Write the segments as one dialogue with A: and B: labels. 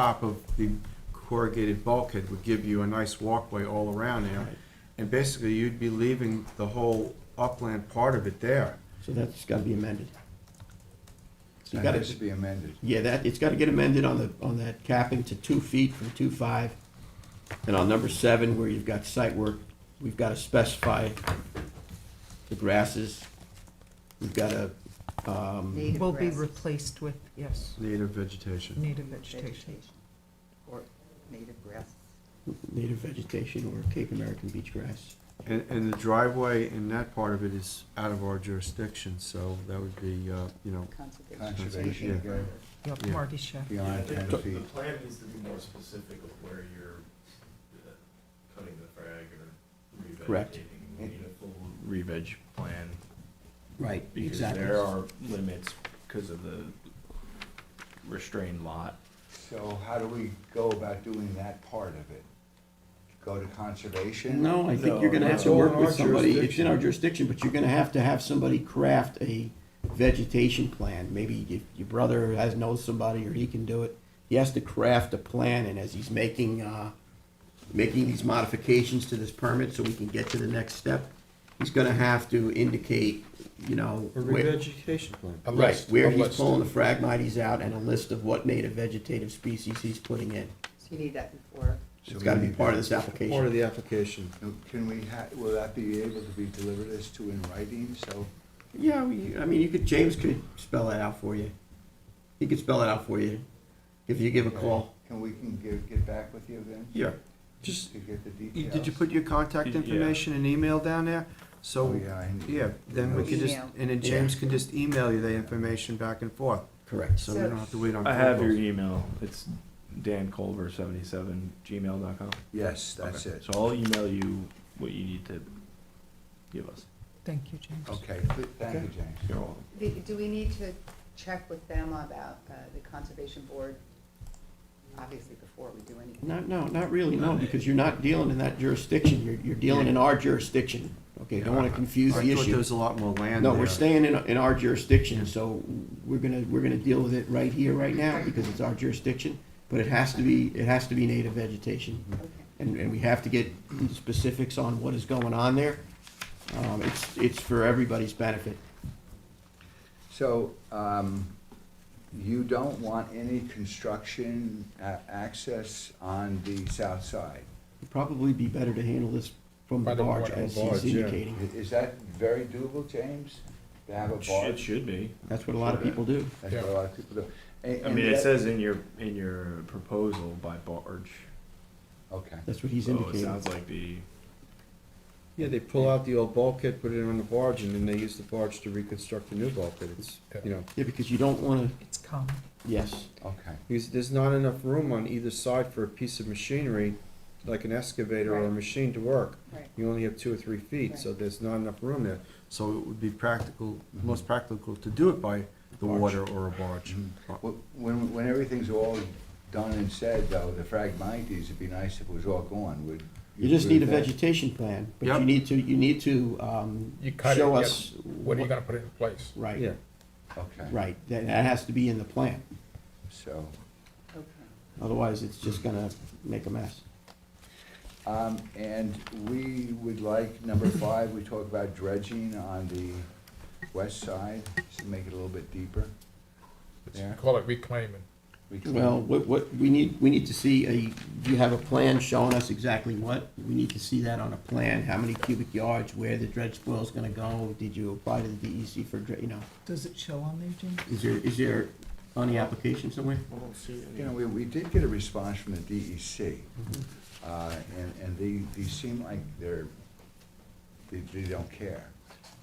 A: top of the corrugated bulkhead would give you a nice walkway all around there. And basically, you'd be leaving the whole upland part of it there.
B: So that's gotta be amended. So you
C: That
B: gotta,
C: has to be amended.
B: yeah, that, it's gotta get amended on the, on that capping to two feet from two five. And on number seven, where you've got site work, we've gotta specify the grasses. We've gotta, um,
D: Native
E: Will be
D: grasses,
E: replaced with, yes,
A: Native vegetation.
E: native vegetation.
D: Or native grasses.
B: native vegetation or Cape American beach grass.
A: And, and the driveway in that part of it is out of our jurisdiction, so that would be, uh, you know,
D: Conservation.
C: Conservation, again,
E: Yeah,
A: Yeah.
E: Marty Chef.
C: beyond
F: The,
C: ten
F: the
C: feet.
F: plan needs to be more specific of where you're uh, cutting the frag or revegetating.
B: Correct.
F: We need a full re-veg plan.
B: Right,
F: Because there are limits because of the restrained lot.
C: So how do we go about doing that part of it? Go to conservation?
B: No, I think
A: No,
B: you're gonna have
A: it's
B: to
A: all
B: work
A: in
B: with
A: our
B: somebody, it's in our jurisdiction, but you're gonna have to have somebody craft a vegetation plan. Maybe y- your brother has, knows somebody, or he can do it. He has to craft a plan, and as he's making, uh, making these modifications to this permit, so we can get to the next step, he's gonna have to indicate, you know.
A: a
B: where-
A: revegetation plan.
G: A
B: Right,
G: list,
B: where
G: a
B: he's
G: list.
B: pulling the phragmites out, and a list of what native vegetative species he's putting in.
D: So you need that before,
C: So
B: It's
C: we
B: gotta be
C: need
B: part of
C: that.
B: this application.
A: Part of the application.
C: Now, Can we ha, will that be able to be delivered as to in writing, so?
B: Yeah, we, I mean, you could, James could spell that out for you. He could spell it out for you if you give a call.
C: Can we can get, get back with you then?
A: Yeah, just,
C: To get the
A: you-
C: details?
A: did you put your contact
F: Yeah.
A: information and email down there?
C: Oh,
A: So,
C: yeah, I need.
A: yeah, then we could just,
D: Email.
A: and then James can just email you the information back and forth,
B: Correct.
A: so we don't have to wait on.
F: I have
A: phone
F: your
A: calls.
F: email. It's danculver77 gmail.com.
C: Yes, that's it.
F: So I'll email you what you need to give us.
E: Thank you, James.
C: Okay, th- thank you, James.
F: You're welcome.
D: do do we need to check with them about uh, the conservation board? Obviously, before we do anything.
B: No, no, not really, no, because you're not dealing in that jurisdiction. You're, you're dealing in our jurisdiction. Okay, don't want to confuse the
A: I thought there
B: issue.
A: was a lot more land
B: No, we're
A: there.
B: staying in, in our jurisdiction, so we're gonna, we're gonna deal with it right here, right now, because it's our jurisdiction. But it has to be, it has to be native vegetation.
D: Okay.
B: and, and we have to get specifics on what is going on there. Um, it's, it's for everybody's benefit.
C: So, um, you don't want any construction a- access on the south side?
B: It'd probably be better to handle this from the
G: By the
B: barge,
G: water,
B: as
G: barge,
B: he's
G: yeah.
C: I-
B: indicating.
C: Is that very doable, James? To have a
F: It
C: barge?
F: should be.
B: That's what a lot of people do.
C: That's what a lot of people do. And-
F: I
C: and
F: mean, it
C: that-
F: says in your, in your proposal by barge.
C: Okay,
B: That's what he's
G: Oh,
F: So Oh, it
B: indicating.
F: sounds like the,
A: Yeah, they pull out the old bulkhead, put it on the barge, and then they use the barge to reconstruct the new bulkhead. It's, you know,
B: Yeah, because you don't wanna,
E: It's common.
B: yes,
C: okay.
A: because there's not enough room on either side for a piece of machinery, like an excavator or a
D: Right.
A: machine to work.
D: Right.
A: You only have two or three feet, so there's not enough room there. So it would be practical,
B: Mm-hmm.
A: most practical to do it by the water or a barge.
B: Mm-hmm.
C: Wh- When, when everything's all done and said, though, the fragmites, it'd be nice if it was all gone, would.
B: you just need a
C: agree with that?
B: vegetation plan, but
A: Yep.
B: you need to, you need to, um,
G: You cut it,
B: show
G: yeah,
B: us.
G: when are you gonna put it in place?
A: Yeah,
B: Right,
C: Okay.
B: right, that, that has to be in the plan,
C: So,
D: Okay.
B: otherwise it's just gonna make a mess.
C: um, and we would like, number five, we talk about dredging on the west side, to make it a little bit deeper. Yeah.
G: Call it reclaiming.
C: We can-
B: Well, what, what, we need, we need to see a, do you have a plan showing us exactly what? We need to see that on a plan, how many cubic yards, where the dredge spoil's gonna go, did you apply to the DEC for, dre- you know?
E: Does it show on there, James?
B: Is there, is there on the application somewhere?
C: You know, we, we did get a response from the DEC, uh, and, and they, they seem like they're, they, they don't care.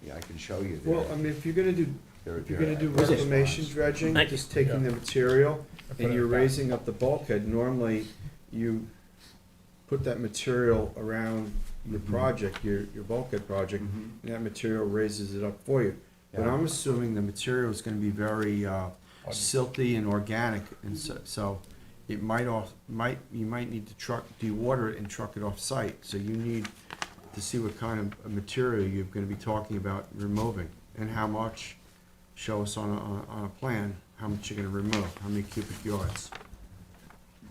C: Yeah, I can show you
A: well, I
C: their,
A: mean, if you're gonna do,
C: their.
A: if you're gonna do
C: their response.
A: reclamation dredging, just taking the material, and you're raising up the bulkhead, normally you put that material around your project, your, your bulkhead project,
C: Mhm.
A: and that material raises it up for you. But
C: Yeah.
A: I'm assuming the material is gonna be very uh, silty and organic, and so, so it might off, might, you might need to truck, de-water it and truck it off-site. So you need to see what kind of material you're gonna be talking about removing, and how much, show us on a, on a- on a plan, how much you're gonna remove, how many cubic yards.